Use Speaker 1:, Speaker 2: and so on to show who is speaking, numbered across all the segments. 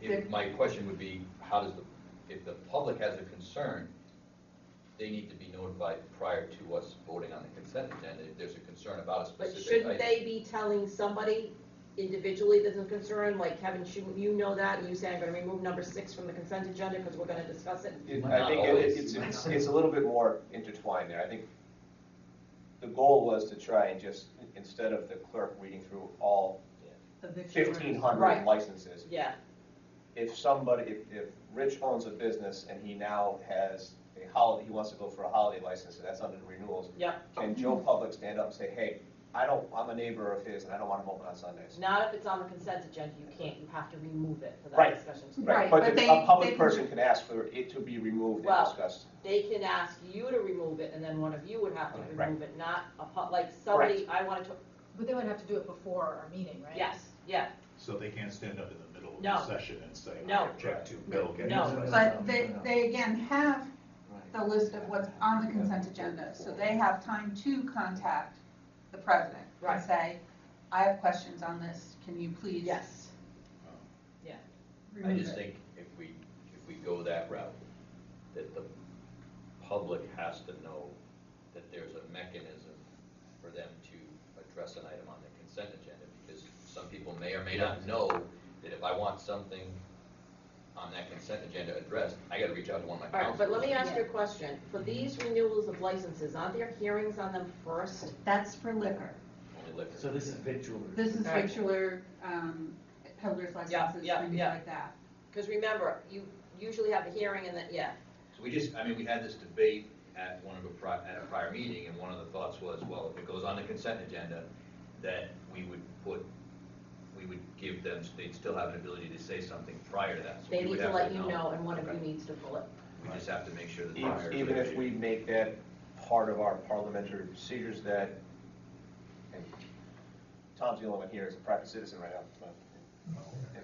Speaker 1: If, my question would be, how does the, if the public has a concern, they need to be notified prior to us voting on the consent agenda if there's a concern about a
Speaker 2: But
Speaker 1: specific
Speaker 2: shouldn't
Speaker 1: item.
Speaker 2: they be telling somebody individually that's a concern, like Kevin, shouldn't you know that, and you say, I'm gonna remove number six from the consent agenda because we're gonna discuss it?
Speaker 3: It-
Speaker 1: Why
Speaker 3: I
Speaker 1: not
Speaker 3: think it-
Speaker 1: always?
Speaker 3: it's,
Speaker 1: Why
Speaker 3: it's,
Speaker 1: not?
Speaker 3: it's a little bit more intertwined there. I think the goal was to try and just, instead of the clerk reading through all
Speaker 2: Right.
Speaker 3: fifteen hundred licenses,
Speaker 2: Yeah,
Speaker 3: if somebody, if, if Rich owns a business and he now has a holiday, he wants to go for a holiday license, and that's under the renewals,
Speaker 2: yeah,
Speaker 3: can Joe Public stand up and say, hey, I don't, I'm a neighbor of his and I don't want him open on Sundays?
Speaker 2: not if it's on the consent agenda, you can't, you have to remove it for
Speaker 3: Right.
Speaker 2: that discussion.
Speaker 4: Right,
Speaker 3: But
Speaker 4: but
Speaker 3: the-
Speaker 4: they-
Speaker 3: a
Speaker 4: they
Speaker 3: public
Speaker 4: can-
Speaker 3: person can ask for it to be removed and
Speaker 2: Well,
Speaker 3: discussed.
Speaker 2: They can ask you to remove it, and then one of you would have to
Speaker 3: Right.
Speaker 2: remove it, not a, pu- like, somebody, I wanted to,
Speaker 4: But they would have to do it before our meeting, right?
Speaker 2: yes, yeah,
Speaker 5: So they can't stand up in the middle of
Speaker 2: No.
Speaker 5: the session and say,
Speaker 2: No.
Speaker 5: I object to Bill getting.
Speaker 2: No.
Speaker 5: this."
Speaker 6: But they, they again have the list of what's on the consent agenda, so they have time to contact the president
Speaker 2: Right.
Speaker 6: and say, I have questions on this, can you please?
Speaker 2: yes.
Speaker 1: I
Speaker 6: remove
Speaker 1: just
Speaker 6: it?"
Speaker 1: think if we, if we go that route, that the public has to know that there's a mechanism for them to address an item on the consent agenda, because some people may or may not know that if I want something on that consent agenda addressed, I gotta reach out to one of my
Speaker 2: All right,
Speaker 1: councils.
Speaker 2: but let me ask you a question, for these renewals of licenses, aren't there hearings on them first?
Speaker 6: That's for liquor.
Speaker 1: Only liquor.
Speaker 7: So this is victual.
Speaker 6: This is
Speaker 2: Right.
Speaker 6: regular, um, peddler's
Speaker 2: Yeah,
Speaker 6: licenses,
Speaker 2: yeah,
Speaker 6: things
Speaker 2: yeah.
Speaker 6: like that.
Speaker 2: Because remember, you usually have a hearing and then, yeah,
Speaker 1: So we just, I mean, we had this debate at one of a pri, at a prior meeting, and one of the thoughts was, well, if it goes on the consent agenda, that we would put, we would give them, they'd still have an ability to say something prior to that. So
Speaker 2: they
Speaker 1: we
Speaker 2: need
Speaker 1: would
Speaker 2: to
Speaker 1: have
Speaker 2: let you know, and one of you
Speaker 1: Okay.
Speaker 2: needs to pull it.
Speaker 1: We just have to make sure that. prior to
Speaker 3: Even even
Speaker 1: the
Speaker 3: if we make that part of our parliamentary procedures that, and Tom's the only one here, he's a private citizen right now, but,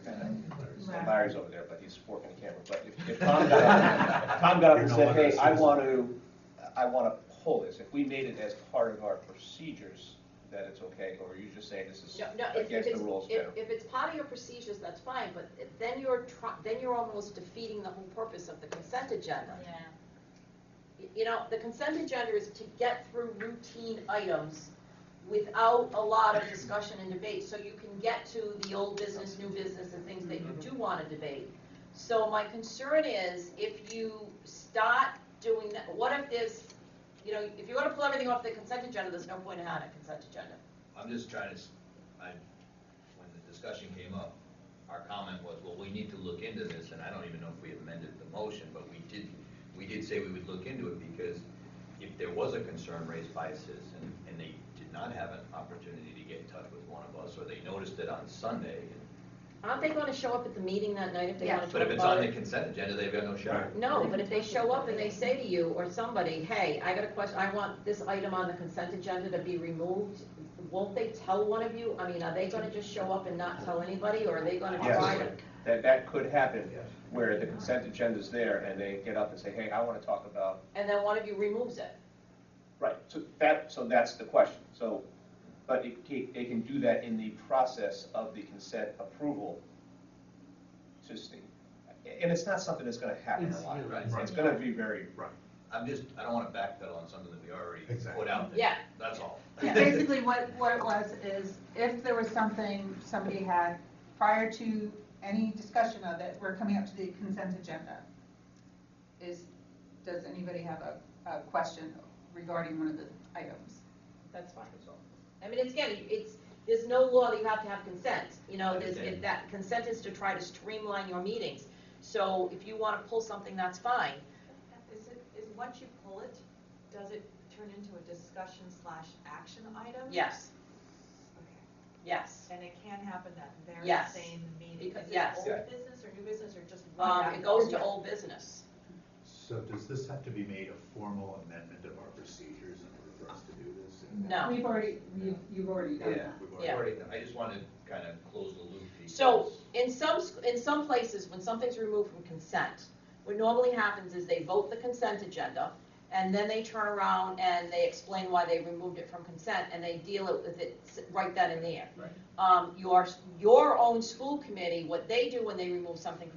Speaker 3: and
Speaker 4: Right.
Speaker 3: Larry's over there, but he's working the camera, but if, if Tom got up, Tom got up and
Speaker 5: You're no
Speaker 3: said,
Speaker 5: longer a
Speaker 3: hey, I
Speaker 5: citizen."
Speaker 3: want to, I want to pull this, if we made it as part of our procedures, that it's okay, or you just say this is
Speaker 2: No, no, if if
Speaker 3: against
Speaker 2: it's,
Speaker 3: the rules,
Speaker 2: if,
Speaker 3: Joe.
Speaker 2: if it's part of your procedures, that's fine, but if- then you're try, then you're almost defeating the whole purpose of the consent agenda.
Speaker 4: Yeah.
Speaker 2: Y- You know, the consent agenda is to get through routine items without a lot of discussion and debate, so you can get to the old business, new business, and things that you
Speaker 1: Mm-hmm.
Speaker 2: do wanna debate. So my concern is, if you start doing that, what if there's, you know, if you wanna pull everything off the consent agenda, there's no point in having a consent agenda.
Speaker 1: I'm just trying to, s- I, when the discussion came up, our comment was, well, we need to look into this, and I don't even know if we amended the motion, but we did, we did say we would look into it, because if there was a concern raised by a citizen, and they did not have an opportunity to get in touch with one of us, or they noticed it on Sunday,
Speaker 2: Aren't they gonna show up at the meeting that night if they
Speaker 6: Yeah.
Speaker 2: wanna talk about
Speaker 1: but if
Speaker 2: it?
Speaker 1: it's on the consent agenda, they've got no shot.
Speaker 2: No, but if they show up and they say to you or somebody, hey, I got a question, I want this item on the consent agenda to be removed, won't they tell one of you? I mean, are they gonna just show up and not tell anybody, or are they gonna
Speaker 3: Yes.
Speaker 2: try to?
Speaker 3: That, that could happen,
Speaker 5: Yes.
Speaker 3: where the consent agenda's there, and they get up and say, hey, I want to talk about
Speaker 2: And then one of you removes it.
Speaker 3: Right, so that, so that's the question, so, but it, ca- they can do that in the process of the consent approval system. And it's not something that's gonna happen a
Speaker 7: It's-
Speaker 3: lot,
Speaker 1: Right.
Speaker 3: it's gonna be very,
Speaker 1: I'm just, I don't wanna backpedal on something that we already put
Speaker 5: Exactly.
Speaker 1: out there.
Speaker 2: Yeah.
Speaker 1: That's all.
Speaker 6: Basically, what, what it was is if there was something somebody had prior to any discussion of it, we're coming up to the consent agenda. Is, does anybody have a, a question regarding one of the items?
Speaker 2: That's fine.
Speaker 1: That's all.
Speaker 2: I mean, it's, again, it's, there's no law that you have to have consent, you know, there's, if
Speaker 1: Understand.
Speaker 2: that, consent is to try to streamline your meetings. So if you wanna pull something, that's fine.
Speaker 8: Is it, is, once you pull it, does it turn into a discussion slash action item?
Speaker 2: Yes,
Speaker 8: Okay.
Speaker 2: yes.
Speaker 8: And it can happen that very
Speaker 2: Yes.
Speaker 8: same meeting?
Speaker 2: Because-
Speaker 8: Is
Speaker 2: yes.
Speaker 8: it
Speaker 3: Yeah.
Speaker 8: old business or new business or just one?
Speaker 2: Um,
Speaker 8: after
Speaker 2: it
Speaker 8: the
Speaker 2: goes
Speaker 8: other?
Speaker 2: to old business.
Speaker 5: So does this have to be made a formal amendment of our procedures in order for us to do this?
Speaker 2: No.
Speaker 6: We've already, you've, you've already done that.
Speaker 5: We've
Speaker 2: Yeah.
Speaker 5: already-
Speaker 1: Already, I just wanna kind of close the loop.
Speaker 2: So,
Speaker 1: because-
Speaker 2: in some, sc- in some places, when something's removed from consent, what normally happens is they vote the consent agenda, and then they turn around and they explain why they removed it from consent, and they deal it with it s- right then and there.
Speaker 1: Right.
Speaker 2: Um, your, your own school committee, what they do when they remove something from